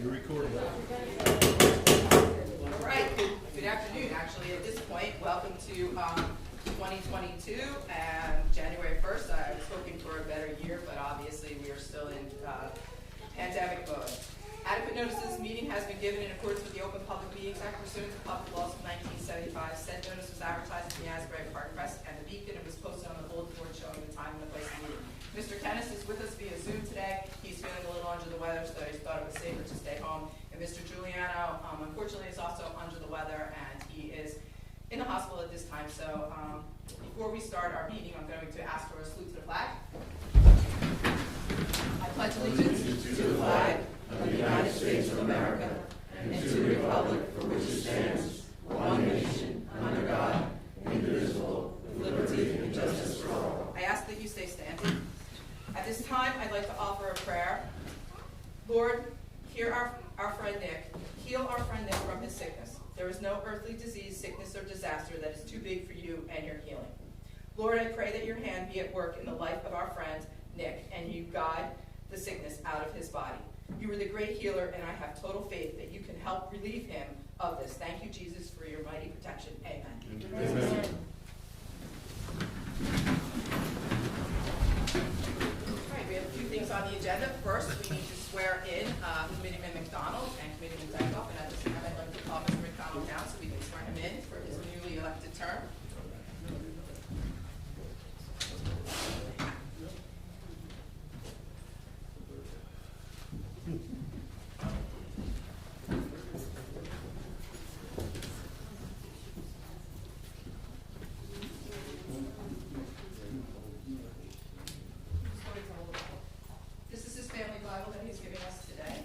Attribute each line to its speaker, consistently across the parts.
Speaker 1: You're recording.
Speaker 2: All right, good afternoon, actually, at this point, welcome to um, 2022, and January 1st, I was hoping for a better year, but obviously, we are still in uh, pandemic mode. Adequate notice of this meeting has been given in accordance with the Open Public Meetings Act pursuant to public laws of 1975. Said notice was advertised in the Asbury Park Press and the Beacon and was posted on the bulletin board showing the time and the place of meeting. Mr. Kennis is with us via Zoom today. He's feeling a little under the weather, so he thought it was safer to stay home. And Mr. Giuliano, um, unfortunately, is also under the weather, and he is in the hospital at this time. So um, before we start our meeting, I'm going to ask for a salute to the flag. I pledge allegiance to the flag of the United States of America and to the republic for which it stands, one nation, under God, indivisible, with liberty and justice for all. I ask that you stay standing. At this time, I'd like to offer a prayer. Lord, hear our, our friend Nick. Heal our friend Nick from his sickness. There is no earthly disease, sickness, or disaster that is too big for you and your healing. Lord, I pray that your hand be at work in the life of our friend Nick and you guide the sickness out of his body. You are the great healer, and I have total faith that you can help relieve him of this. Thank you, Jesus, for your mighty protection. Amen. All right, we have a few things on the agenda. First, we need to swear in uh, Committeeman McDonald and Committeeman Dykoff, and at this time, I'd like to call Mr. McDonald down so we can swear him in for his newly elected term. This is his family Bible that he's giving us today.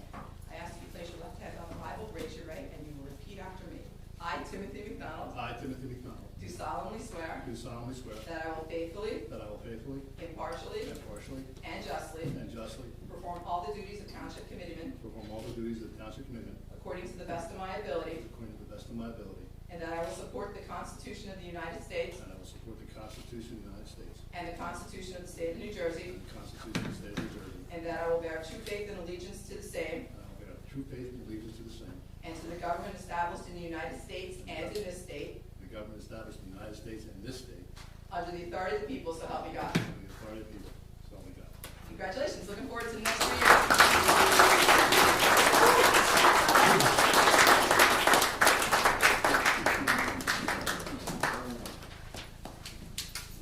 Speaker 2: I ask you to place your left hand on the Bible, raise your right, and you will repeat after me. I, Timothy McDonald,
Speaker 1: I, Timothy McDonald,
Speaker 2: do solemnly swear
Speaker 1: do solemnly swear
Speaker 2: that I will faithfully,
Speaker 1: that I will faithfully,
Speaker 2: impartially,
Speaker 1: impartially,
Speaker 2: and justly
Speaker 1: and justly
Speaker 2: perform all the duties of Township Committeeman
Speaker 1: perform all the duties of the Township Commitment
Speaker 2: according to the best of my ability,
Speaker 1: according to the best of my ability,
Speaker 2: and that I will support the Constitution of the United States
Speaker 1: and I will support the Constitution of the United States
Speaker 2: and the Constitution of the State of New Jersey,
Speaker 1: and the Constitution of the State of New Jersey,
Speaker 2: and that I will bear true faith and allegiance to the same
Speaker 1: and I will bear true faith and allegiance to the same,
Speaker 2: and to the government established in the United States and in this state,
Speaker 1: the government established in the United States and this state,
Speaker 2: under the authority of the people, so help me God.
Speaker 1: and the authority of the people, so help me God.
Speaker 2: Congratulations, looking forward to the next three years.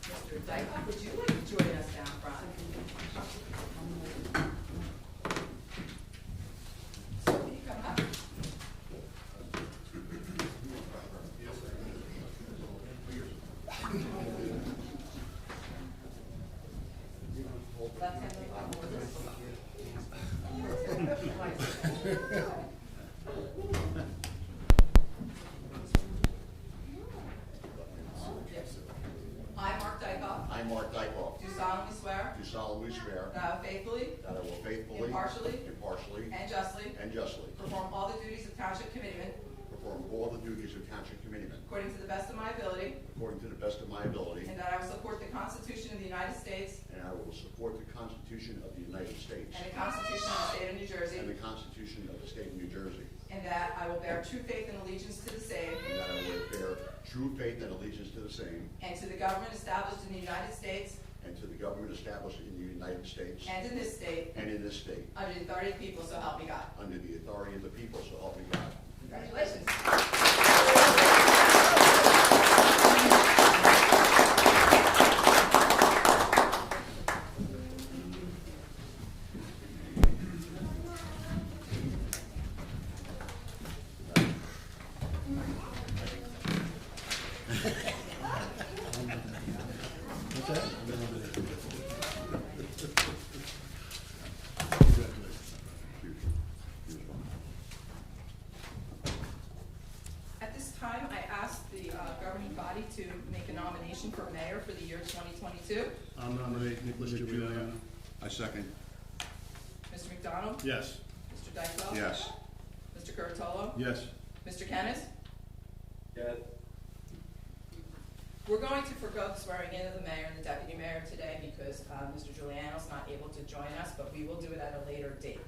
Speaker 2: Mr. Dykoff, would you like to join us down front? So, can you come up? Left hand on the Bible. I, Mark Dykoff,
Speaker 3: I, Mark Dykoff,
Speaker 2: do solemnly swear
Speaker 3: do solemnly swear
Speaker 2: that I will faithfully
Speaker 3: that I will faithfully,
Speaker 2: Impartially.
Speaker 3: impartially,
Speaker 2: and justly
Speaker 3: and justly
Speaker 2: perform all the duties of Township Committeeman
Speaker 3: perform all the duties of Township Committeeman
Speaker 2: according to the best of my ability,
Speaker 3: according to the best of my ability,
Speaker 2: and that I will support the Constitution of the United States
Speaker 3: and I will support the Constitution of the United States
Speaker 2: and the Constitution of the State of New Jersey,
Speaker 3: and the Constitution of the State of New Jersey,
Speaker 2: and that I will bear true faith and allegiance to the same
Speaker 3: and that I will bear true faith and allegiance to the same
Speaker 2: and to the government established in the United States
Speaker 3: and to the government established in the United States
Speaker 2: and in this state
Speaker 3: and in this state,
Speaker 2: under the authority of the people, so help me God.
Speaker 3: under the authority of the people, so help me God.
Speaker 2: Congratulations. At this time, I ask the uh, governing body to make a nomination for mayor for the year 2022.
Speaker 1: I'm nominating Nicholas Giuliano.
Speaker 3: I second.
Speaker 2: Mr. McDonald?
Speaker 1: Yes.
Speaker 2: Mr. Dykoff?
Speaker 3: Yes.
Speaker 2: Mr. Curatolo?
Speaker 1: Yes.
Speaker 2: Mr. Kennis?
Speaker 4: Yes.
Speaker 2: We're going to forego the swearing in of the mayor and the deputy mayor today because uh, Mr. Giuliano's not able to join us, but we will do it at a later date.